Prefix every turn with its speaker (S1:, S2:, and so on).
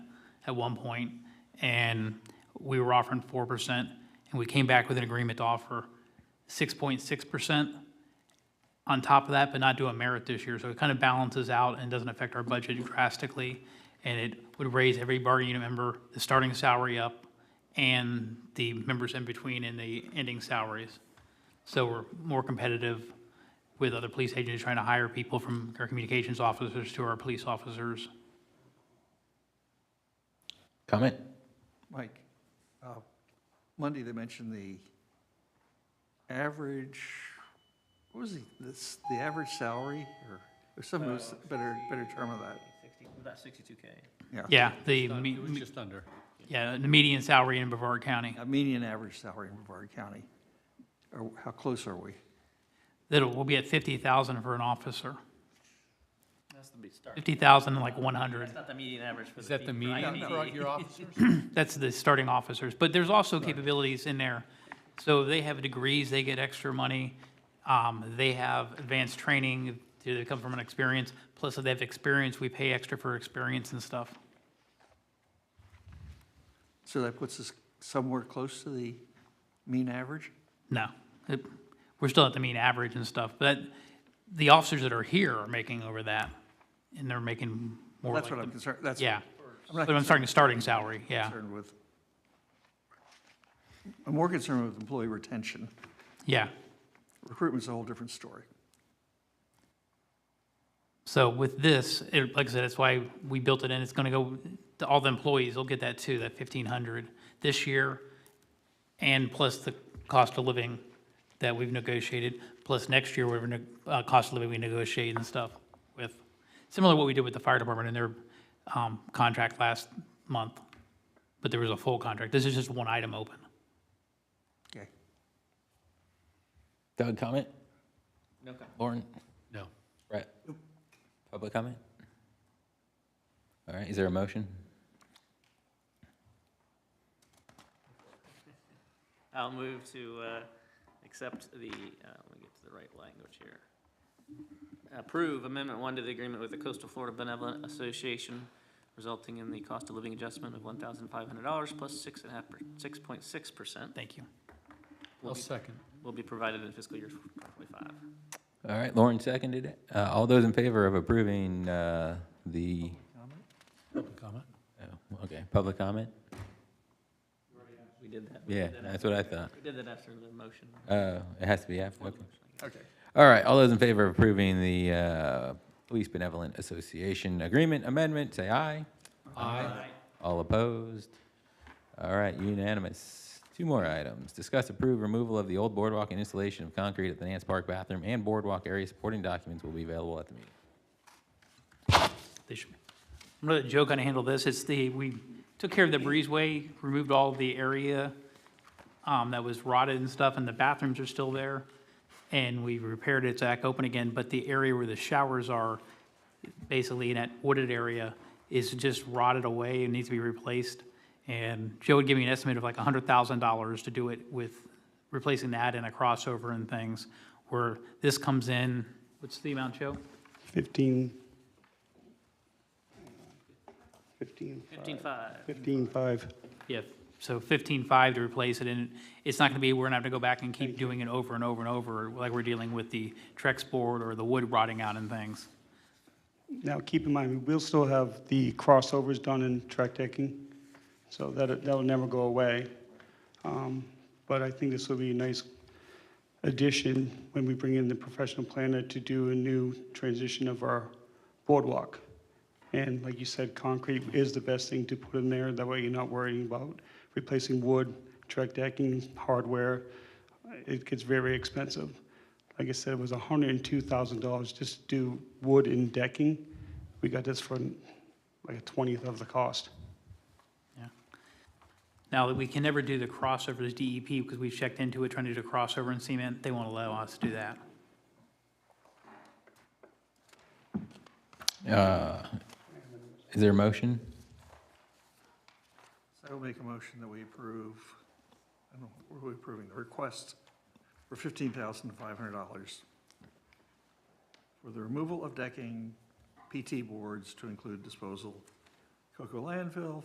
S1: at one point, and we were offering four percent, and we came back with an agreement to offer six point six percent on top of that, but not do a merit this year. So it kind of balances out and doesn't affect our budget drastically. And it would raise every bargaining unit member, the starting salary up, and the members in between and the ending salaries. So we're more competitive with other police agencies trying to hire people from our communications officers to our police officers.
S2: Comment?
S3: Mike, uh, Monday they mentioned the average, what was the, this, the average salary or, or some
S1: Uh,
S3: was better, better term of that,
S4: About sixty-two K.
S3: yeah.
S1: Yeah, the, me-
S5: Just under.
S1: yeah, the median salary in Brevard County.
S3: A median average salary in Brevard County. Or how close are we?
S1: That will be at fifty thousand for an officer,
S4: That's the big start.
S1: fifty thousand and like one hundred.
S4: That's not the median average for the.
S5: Is that the
S4: peop-
S5: median
S4: IED.
S5: for your officers?
S1: That's the starting officers, but there's also capabilities in there. So they have degrees, they get extra money, um, they have advanced training, they come from an experience, plus if they have experience, we pay extra for experience and stuff.
S3: So that puts us somewhere close to the mean average?
S1: No, It- we're still at the mean average and stuff, but the officers that are here are making over that, and they're making more like
S3: That's what I'm
S1: the,
S3: concerned, that's.
S1: yeah.
S3: I'm not
S1: But I'm starting, starting salary, yeah,
S3: concerned with. I'm more concerned with employee retention.
S1: yeah.
S3: Recruitment's a whole different story.
S1: So with this, it, like I said, that's why we built it in, it's gonna go, to all the employees will get that too, that fifteen hundred this year, and plus the cost of living that we've negotiated, plus next year, whatever, neg- uh, cost of living we negotiate and stuff with. Similar to what we did with the fire department and their, um, contract last month, but there was a full contract, this is just one item open.
S3: Okay.
S2: Doug, comment?
S4: No comment.
S2: Lauren?
S5: No.
S2: Brett? Public comment? All right, is there a motion?
S4: I'll move to, uh, accept the, uh, let me get to the right language here. Approve Amendment One to the agreement with the Coastal Florida Benevolent Association resulting in the cost of living adjustment of one thousand five hundred dollars plus six and a half, six point six percent
S1: Thank you.
S5: I'll second.
S4: will be provided in fiscal year twenty-five.
S2: All right, Lauren seconded it. Uh, all those in favor of approving, uh, the,
S5: Public comment?
S2: oh, okay, public comment?
S4: We did that. We
S2: Yeah,
S4: did that
S2: that's
S4: after-
S2: what I thought.
S4: We did that after the motion.
S2: Uh, it has to be after, okay.
S3: Okay.
S2: All right, all those in favor of approving the, uh, Police Benevolent Association Agreement Amendment, say aye.
S5: Aye.
S2: All opposed? All right, unanimous. Two more items. Discuss approve removal of the old boardwalk and installation of concrete at the Nance Park bathroom and boardwalk area. Supporting documents will be available at the meeting.
S1: They should. I'm gonna let Joe kind of handle this. It's the, we took care of the breezeway, removed all the area um, that was rotted and stuff, and the bathrooms are still there. And we repaired it, it's back open again, but the area where the showers are, basically in that wooded area, is just rotted away and needs to be replaced. And Joe would give me an estimate of like hundred thousand dollars to do it with replacing that and a crossover and things, where this comes in, what's the amount, Joe?
S6: 15, 15,
S4: Fifteen-five.
S6: 15, 5.
S1: Yeah, so fifteen-five to replace it, and it's not gonna be, we're gonna have to go back and keep doing it over and over and over, like we're dealing with the Trex board or the wood rotting out and things.
S6: Now, keep in mind, we'll still have the crossovers done in track decking, so that, that'll never go away. Um, But I think this will be a nice addition when we bring in the professional planner to do a new transition of our boardwalk. And like you said, concrete is the best thing to put in there, that way you're not worrying about replacing wood, track decking, hardware. It gets very expensive. Like I said, it was hundred and two thousand dollars just to do wood and decking. We got this for like a twentieth of the cost.
S1: Now, we can never do the crossovers DEP, because we've checked into it, trying to do the crossover in cement, they won't allow us to do that.
S2: Uh, Is there a motion?
S3: So I will make a motion that we approve, I don't know, what are we approving, the request for fifteen thousand five hundred dollars for the removal of decking, PT boards to include disposal, cocoa landfill,